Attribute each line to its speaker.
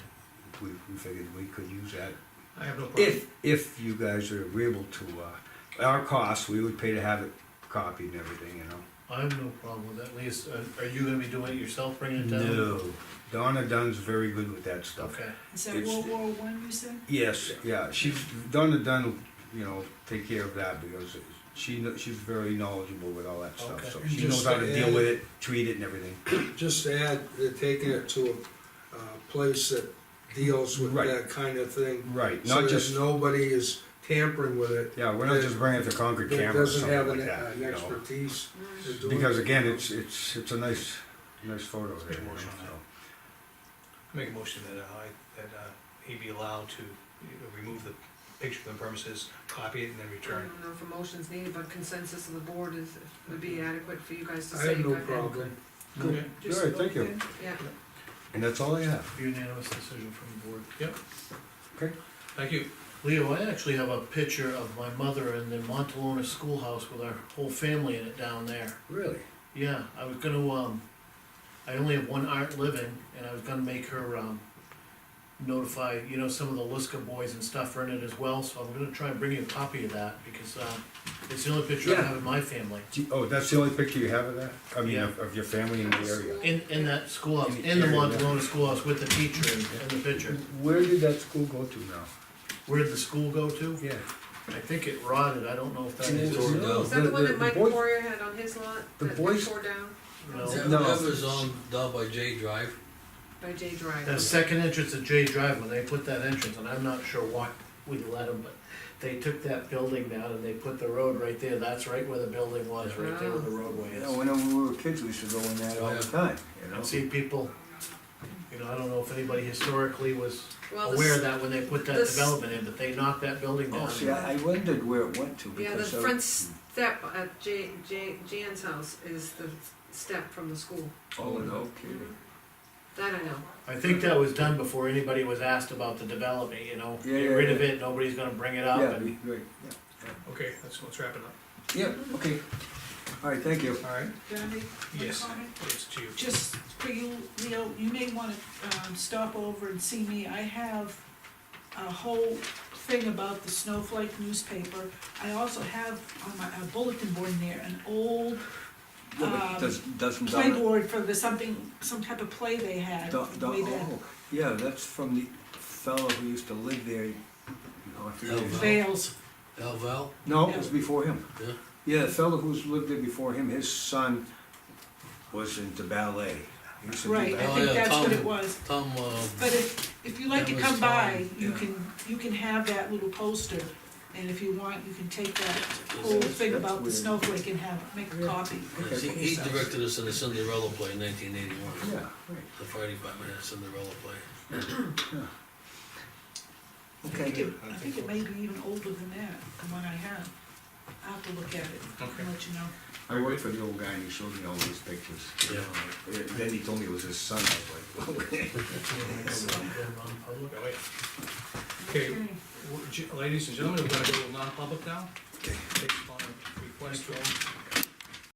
Speaker 1: we, we figured we could use that.
Speaker 2: I have no problem.
Speaker 1: If, if you guys are agreeable to, uh, our costs, we would pay to have it copied and everything, you know?
Speaker 2: I have no problem with that, Lee's, are you gonna be doing it yourself, bringing it down?
Speaker 1: No, Donna Dunn's very good with that stuff.
Speaker 2: Okay,
Speaker 3: Is that
Speaker 1: It's-
Speaker 3: World War One, you said?
Speaker 1: Yes, yeah, she's, Donna Dunn, you know, take care of that because she, kn- she's very knowledgeable with all that
Speaker 2: Okay.
Speaker 1: stuff, so
Speaker 2: And
Speaker 1: she knows
Speaker 4: just
Speaker 1: how to
Speaker 4: to
Speaker 1: deal
Speaker 4: add-
Speaker 1: with it, treat it and everything.
Speaker 4: Just add, they're taking it to a, uh place that deals with
Speaker 1: Right.
Speaker 4: that kind of thing.
Speaker 1: Right,
Speaker 4: So
Speaker 1: not
Speaker 4: that
Speaker 1: just,
Speaker 4: nobody is tampering with it,
Speaker 1: yeah, we're not just bringing it to Concord
Speaker 4: that
Speaker 1: Camera or
Speaker 4: doesn't
Speaker 1: something
Speaker 4: have
Speaker 1: like
Speaker 4: an, uh,
Speaker 1: that,
Speaker 4: an
Speaker 1: you know?
Speaker 4: expertise. in doing
Speaker 1: Because
Speaker 4: it.
Speaker 1: again, it's, it's, it's a nice, nice photo
Speaker 2: Let's
Speaker 1: there,
Speaker 2: make a
Speaker 1: you know,
Speaker 2: motion on
Speaker 1: so.
Speaker 2: make a motion that I, that uh, he be allowed to you know, remove the picture from the premises, copy it, and then
Speaker 5: I
Speaker 2: return.
Speaker 5: don't know if a motion's needed, but consensus of the board is, would be adequate for you guys to
Speaker 4: I
Speaker 5: say.
Speaker 4: have no
Speaker 5: go ahead.
Speaker 4: problem.
Speaker 2: it. Okay,
Speaker 5: Just
Speaker 1: All right, thank you.
Speaker 5: okay, Yeah,
Speaker 1: And that's all I have.
Speaker 2: unanimous decision from the board. Yep.
Speaker 1: Okay.
Speaker 2: Thank you. Leo, I actually have a picture of my mother in the Montalona schoolhouse with our whole family in it down there.
Speaker 1: Really?
Speaker 2: Yeah, I was gonna, um, I only have one aunt living, and I was gonna make her, um, notify, you know, some of the Liska boys and stuff are in it as well, so I'm gonna try and bring you a copy of that, because, um, it's the only picture I
Speaker 1: Yeah.
Speaker 2: have in my family.
Speaker 1: Do you- Oh, that's the only picture you have of that? I mean,
Speaker 2: Yeah.
Speaker 1: of, of your family in the area?
Speaker 2: In, in that schoolhouse,
Speaker 1: In the
Speaker 2: in the
Speaker 1: area, yeah.
Speaker 2: Montalona schoolhouse with the teacher in, in the picture.
Speaker 1: Where did that school go to now?
Speaker 2: Where did the school go to?
Speaker 1: Yeah.
Speaker 2: I think it rotted, I don't know if that is.
Speaker 1: No,
Speaker 5: is that the one that Mike
Speaker 1: boy-
Speaker 5: Poirier had on his lot,
Speaker 1: the
Speaker 5: that they
Speaker 1: boys-
Speaker 5: tore down
Speaker 2: No.
Speaker 1: Yeah.
Speaker 6: That
Speaker 1: No.
Speaker 6: that was on, down by J Drive.
Speaker 5: by Jay
Speaker 2: The
Speaker 5: Drive?
Speaker 2: second entrance at J Drive, when they put that entrance, and I'm not sure why we let them, but they took that building down and they put the road right there, that's right where the building was, right there where the roadway
Speaker 1: Yeah,
Speaker 2: is.
Speaker 1: when we were kids, we used to go in that all the
Speaker 6: Yeah.
Speaker 1: time, you
Speaker 2: I've
Speaker 1: know?
Speaker 2: seen people, you know, I don't know if anybody historically was
Speaker 5: Well,
Speaker 2: aware of
Speaker 5: the, s-
Speaker 2: that when they put that
Speaker 5: this-
Speaker 2: development in, but they knocked that building
Speaker 1: Oh,
Speaker 2: down.
Speaker 1: see, I I wondered where it went to
Speaker 5: yeah, the
Speaker 1: because I.
Speaker 5: front step at Jay, Jay, Jan's house is the step from the school.
Speaker 1: Oh, no kidding.
Speaker 5: Mhm. That I know.
Speaker 2: I think that was done before anybody was asked about the development, you know,
Speaker 1: Yeah,
Speaker 2: get
Speaker 1: yeah,
Speaker 2: rid
Speaker 1: yeah.
Speaker 2: of it, nobody's gonna bring it up,
Speaker 1: Yeah,
Speaker 2: and,
Speaker 1: we- right,
Speaker 7: Okay, let's, let's wrap it up.
Speaker 1: yeah.
Speaker 5: Mm-hmm.
Speaker 1: Yeah, okay. All right, thank you.
Speaker 7: All right.
Speaker 3: Can I make one
Speaker 7: Yes.
Speaker 3: comment?
Speaker 7: It's to you.
Speaker 3: Just for you, Leo, you may wanna, um, stop over and see me, I have a whole thing about the Snowflake newspaper. I also have on my uh, bulletin board in there, an old,
Speaker 8: Yeah, but
Speaker 3: Um,
Speaker 8: does, doesn't Donna,
Speaker 3: playboard for the something, some type of play they had
Speaker 8: Don, Don,
Speaker 3: way back.
Speaker 8: oh, yeah, that's from the fellow who used to live there, you know, I
Speaker 1: Oh,
Speaker 8: forget his-
Speaker 6: Elva.
Speaker 3: Veils,
Speaker 6: Elval,
Speaker 8: No, it was before him.
Speaker 6: Yeah.
Speaker 8: Yeah, the fellow who's lived there before him, his son was into ballet. He used to do
Speaker 3: right, I
Speaker 6: Oh,
Speaker 3: think
Speaker 6: yeah,
Speaker 3: that's what it
Speaker 6: Tom.
Speaker 3: was.
Speaker 6: Tom, uh,
Speaker 3: But if, if you like to
Speaker 6: That
Speaker 3: come
Speaker 6: was
Speaker 3: by,
Speaker 6: fine,
Speaker 3: you
Speaker 8: yeah.
Speaker 3: can, you can have that little poster, and if you want, you can take that
Speaker 6: is-
Speaker 3: whole thing
Speaker 8: that's
Speaker 3: about the
Speaker 8: weird.
Speaker 3: snowflake and have, make a copy.
Speaker 6: is- he, he directed us in the Cinderella play in nineteen eighty-one.
Speaker 8: Yeah, right,
Speaker 6: The fire department had Cinderella play.
Speaker 3: I think
Speaker 8: okay.
Speaker 3: it, I think it may be even older than that, the one I have. I'll have to look at it
Speaker 7: Okay.
Speaker 3: and let you know.
Speaker 8: I worked for the old guy and he showed me all these pictures. you
Speaker 6: Yeah.
Speaker 8: know, and Then he told me it was his son, I was like, okay.
Speaker 7: Oh, yeah. Okay, w- g- ladies and gentlemen, we're gonna go non-public now. Based upon a request from